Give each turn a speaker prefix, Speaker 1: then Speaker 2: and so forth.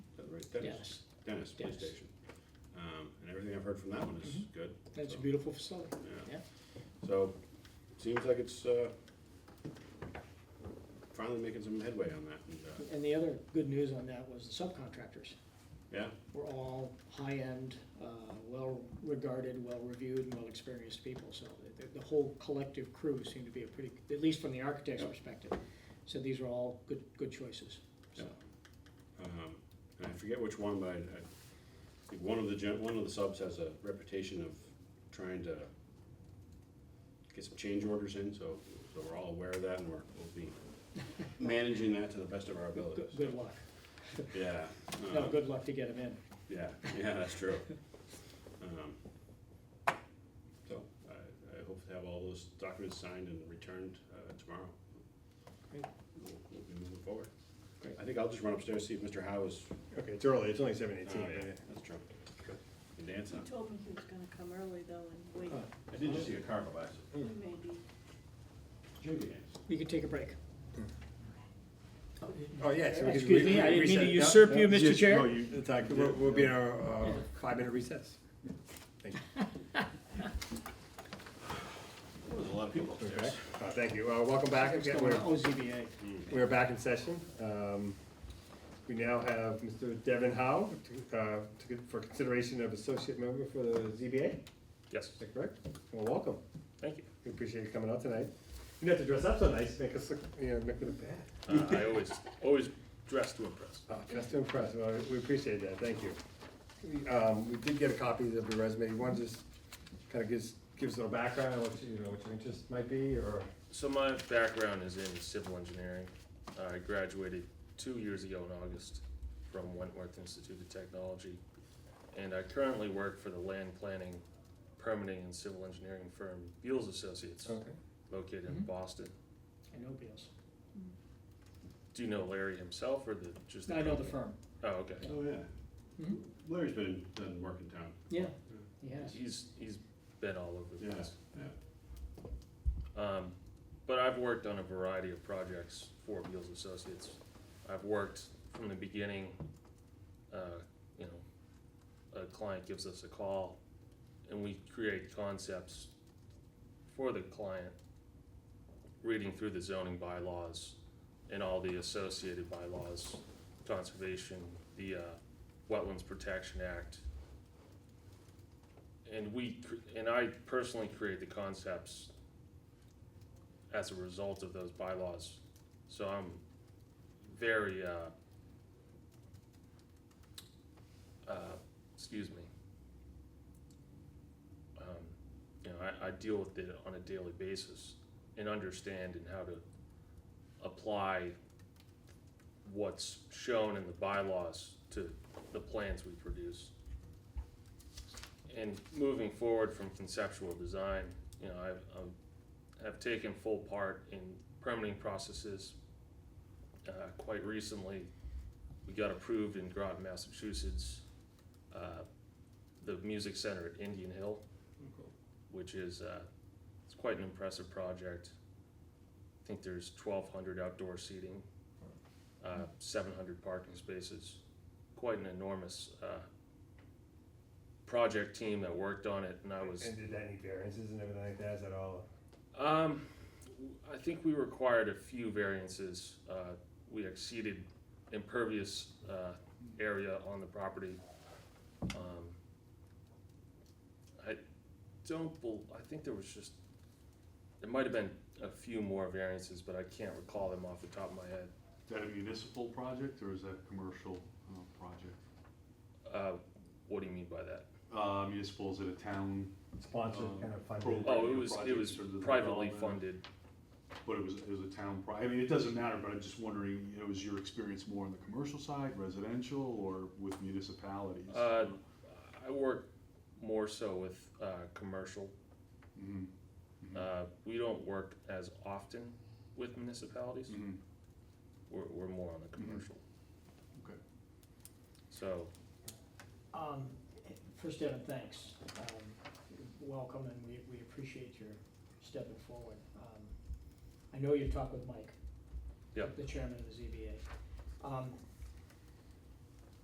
Speaker 1: Dennis, Dennis Police
Speaker 2: Dennis.
Speaker 1: Station. Um, and everything I've heard from that one is
Speaker 2: Mhm.
Speaker 1: good.
Speaker 2: That's a
Speaker 1: so,
Speaker 2: beautiful facility.
Speaker 1: Yeah.
Speaker 2: yeah.
Speaker 1: So, seems like it's, uh, finally making some headway on that, and, uh,
Speaker 2: And the other good news on that was the subcontractors
Speaker 1: yeah,
Speaker 2: were all high-end, uh, well-regarded, well-reviewed, and well-experienced people. So the, the whole collective crew seemed to be a pretty, at least from the architect's
Speaker 1: Yeah.
Speaker 2: perspective. So these are all good, good choices. So,
Speaker 1: um, and I forget which one, but I, I think one of the gen, one of the subs has a reputation of trying to get some change orders in, so, so we're all aware of that, and we're, we'll be managing that to the best of our
Speaker 2: good,
Speaker 1: abilities.
Speaker 2: good luck.
Speaker 1: Yeah.
Speaker 2: No,
Speaker 1: um,
Speaker 2: good luck to get them in.
Speaker 1: Yeah, yeah, that's true. Um, So, I, I hope to have all those documents signed and returned uh, tomorrow.
Speaker 2: Great.
Speaker 1: We'll we'll be moving forward.
Speaker 2: Great.
Speaker 1: I think I'll just run upstairs, see if Mr. Howe is,
Speaker 3: Okay, it's early, it's only seven
Speaker 1: oh,
Speaker 3: eighteen,
Speaker 1: yeah, that's true. And Dan's
Speaker 4: He
Speaker 1: not.
Speaker 4: told me he was gonna come early though and wait,
Speaker 2: Uh,
Speaker 1: I did just see a car go by, so.
Speaker 4: maybe.
Speaker 2: You can take a break.
Speaker 3: Oh, yeah. so we can
Speaker 2: Excuse me, I
Speaker 3: re-
Speaker 2: didn't mean to
Speaker 3: reset. No,
Speaker 2: usurp
Speaker 3: no,
Speaker 2: you, Mr.
Speaker 3: just-
Speaker 2: Chair.
Speaker 3: no, you- it's like, We'll, we'll be in our, uh, five-minute recess. Thank you.
Speaker 1: There's a lot of people
Speaker 3: Okay.
Speaker 1: upstairs.
Speaker 3: Uh, thank you, uh, welcome back,
Speaker 2: What's
Speaker 3: again,
Speaker 2: going
Speaker 3: we're,
Speaker 2: on? Oh, ZBA.
Speaker 3: we're back in session, um, we now have Mr. Devin Howe, to, uh, to, for consideration of associate member for the ZBA,
Speaker 5: Yes,
Speaker 3: is that correct? Well, welcome,
Speaker 5: thank you.
Speaker 3: we appreciate you coming out tonight, you didn't have to dress up so nice, make us look, you know, make it look bad.
Speaker 5: Uh, I always, always dress to impress.
Speaker 3: Oh, Just impressed, well, we appreciate that, thank you. We, Um, we did get a copy of the resume, you want to just kind of gives, gives a background, on what you, you know, what your interest might be, or?
Speaker 5: So my background is in civil engineering. I graduated two years ago in August from Wentworth Institute of Technology. And I currently work for the land planning, permitting and civil engineering firm Beals Associates,
Speaker 2: Oh.
Speaker 3: Okay.
Speaker 5: located in
Speaker 2: Mhm.
Speaker 5: Boston.
Speaker 2: I know Beals.
Speaker 5: Do you know Larry himself or the, just the
Speaker 2: I know the
Speaker 5: company?
Speaker 2: firm.
Speaker 5: Oh, okay.
Speaker 1: Oh, yeah.
Speaker 2: Mhm.
Speaker 1: Larry's been, done work in town.
Speaker 2: Yeah, he has.
Speaker 5: He's, he's been all over the
Speaker 1: Yeah,
Speaker 5: place.
Speaker 1: yeah.
Speaker 5: Um, but I've worked on a variety of projects for Beals Associates. I've worked from the beginning, uh, you know, a client gives us a call and we create concepts for the client, reading through the zoning bylaws and all the associated bylaws, conservation, the, uh, Wetlands Protection Act. And we, cr- and I personally create the concepts as a result of those bylaws. So I'm very, uh, uh, excuse me. Um, you know, I, I deal with it on a daily basis and understand and how to apply what's shown in the bylaws to the plans we produce. And moving forward from conceptual design, you know, I, I'm have taken full part in permitting processes. Uh, quite recently, we got approved in Groton, Massachusetts, uh, the music center at Indian Hill, which is, uh, it's quite an impressive project. I think there's twelve hundred outdoor seating, uh, seven hundred parking spaces, quite an enormous, uh, project team that worked on it, and I was.
Speaker 3: And did that need variances and everything like that, is that all?
Speaker 5: Um, I think we required a few variances. Uh, we exceeded impervious, uh, area on the property. Um, I don't bel, I think there was just, there might have been a few more variances, but I can't recall them off the top of my head.
Speaker 6: Is that a municipal project or is that a commercial uh, project?
Speaker 5: Uh, what do you mean by that?
Speaker 6: Uh, Municipal, is it a town,
Speaker 3: Sponsored,
Speaker 6: Um,
Speaker 3: kind of funded?
Speaker 6: pro-
Speaker 5: Oh, it was, it was
Speaker 6: Projects or the
Speaker 5: privately
Speaker 6: development.
Speaker 5: funded.
Speaker 6: but it was, it was a town pro, I mean, it doesn't matter, but I'm just wondering, you know, is your experience more on the commercial side, residential, or with municipalities?
Speaker 5: Uh, I work more so with, uh, commercial
Speaker 6: Mhm,
Speaker 5: Uh, we don't work as often with municipalities.
Speaker 6: mhm.
Speaker 5: We're, we're more on the commercial.
Speaker 6: Okay.
Speaker 5: So,
Speaker 2: Um, First, Devin, thanks. Um, Welcome, and we, we appreciate your stepping forward. Um, I know you talked with Mike.
Speaker 5: Yep.
Speaker 2: The chairman of the ZBA. Um,